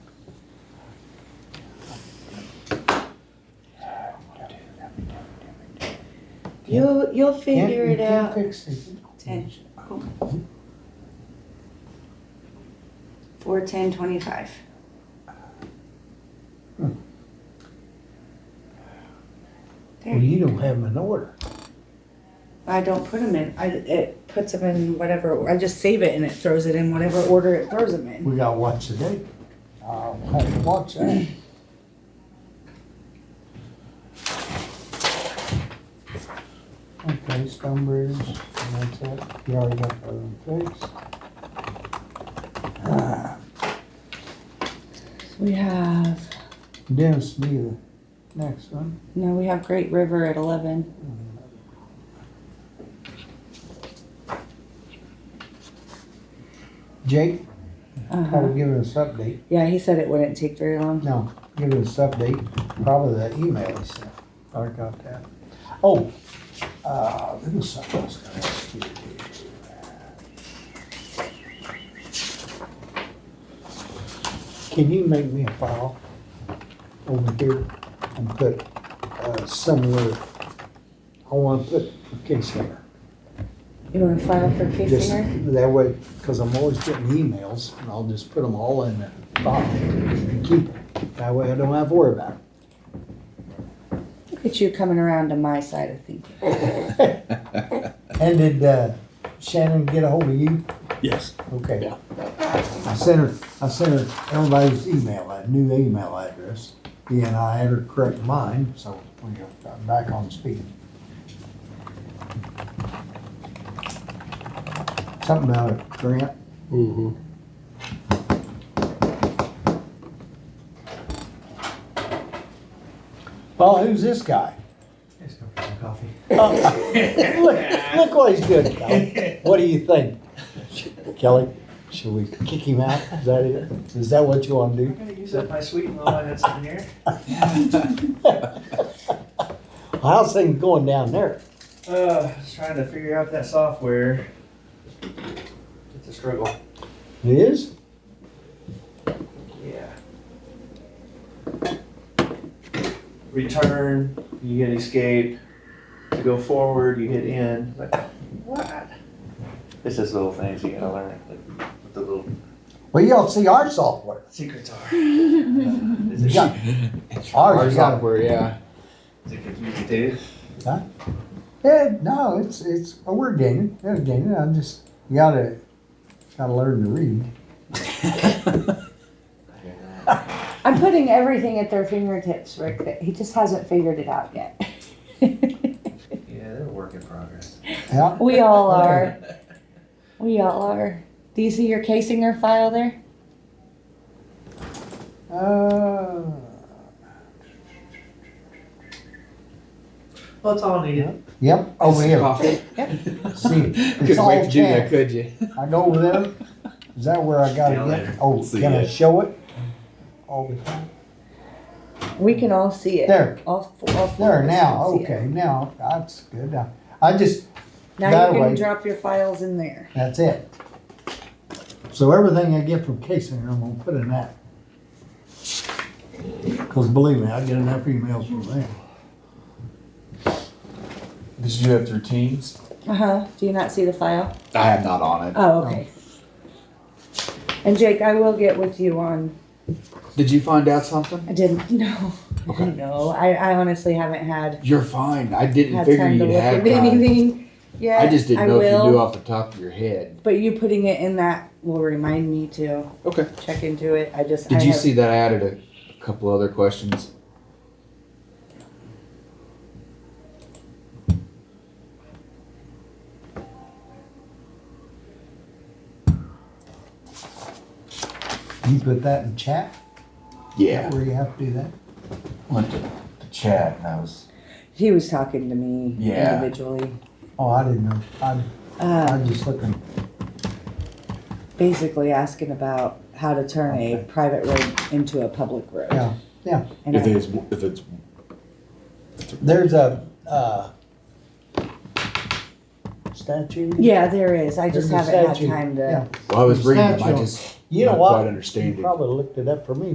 You'll, you'll Can't- figure you it can't out. fix it. Ten, cool. Four, ten, twenty-five. Hmm. Well, There, you don't have them in order. I don't put them in, I, it puts them in whatever, I just save it and it throws it in whatever order it throws them in. We gotta watch the date. I'll have to watch that. Okay, Stonebridge, and that's it. You already got that one fixed. Ah, We have, Dennis, be the next one. no, we have Great River at eleven. Jake, try Uh-huh. to give us update. Yeah, he said it wouldn't take very long. No, give us update, probably the email he sent. I got that. Oh, uh, there was something else I was gonna ask you. to do. Can you make me a file over here and put, uh, somewhere, I wanna put for case here. You wanna file for case Just here? that way, cause I'm always getting emails and I'll just put them all in the file and keep it. That way I don't have to worry about it. Look at you coming around to my side of things. And did uh, Shannon get a hold of you? Yes. Okay. Yeah. I sent her, I sent her everybody's email, that new email address. Yeah, and I had her correct mine, so we got back on speed. Something about a grant. Mm-hmm. Well, who's this guy? Just go for some coffee. Oh, Look look what he's doing, Kelly. What do you think? Kelly, should we kick him out? Is that it? Is that what you want to do? I'm gonna use up my sweet while I had some here. How's things going down there? Uh, just trying to figure out that software. It's a struggle. It is? Yeah. Return, you hit escape. To go forward, you hit in. Like, what? It's just little things you gotta learn. Like, what the little Well, you don't see our software. secrets are. You Is it, got- Oh, Ours, got- yeah. is it confusing too? yeah, no, it's, it's, oh, we're gaining, we're gaining, I'm just, you gotta, gotta learn to read. I'm putting everything at their fingertips, Rick. that- He just hasn't figured it out yet. Yeah, they're a work in progress. Yeah, we all are. We all are. Do you see your Casinger file there? uh, Well, it's all needed. yep, over here, see, it's Couldn't wait all to do that, tab. could you? I go over there, is that where I gotta Down get, there. oh, See can I it. show it? Oh, All the time, We can all see it. There. All, f- all four there of us now, can see it. okay, now, that's good, I- I just, Now That you can way. drop your files in there. that's it. So everything I get from Casey, I'm gonna put in that. Cause believe me, I get enough emails from them. Did you do that through Teams? Uh huh. Do you not see the file? I am not on it. Oh, okay. And Jake, I will get with you on. Did you find out something? I didn't know. Okay. No, I, I honestly haven't had You're fine. I didn't had figure time to you'd look have at time. anything. Yeah, I just didn't know if will. you knew off the top of your head. But you putting it in that will remind me to Okay. check into it. I just Did I you have- see that I added a, a couple other questions? You put that in chat? Where you have to do that? Went to the chat and I was. he was talking to me Yeah. individually. Oh, I didn't know. I, I Uh, was just looking. basically asking about how to turn a Okay. private road into a public road. Yeah, yeah. And I- it's if it's There's a, uh, statue? yeah, there is. I just There's a haven't had statue. time to. Yeah. Well, I was reading them. I Statue. just You know not what? quite You understand it. probably looked it up for me.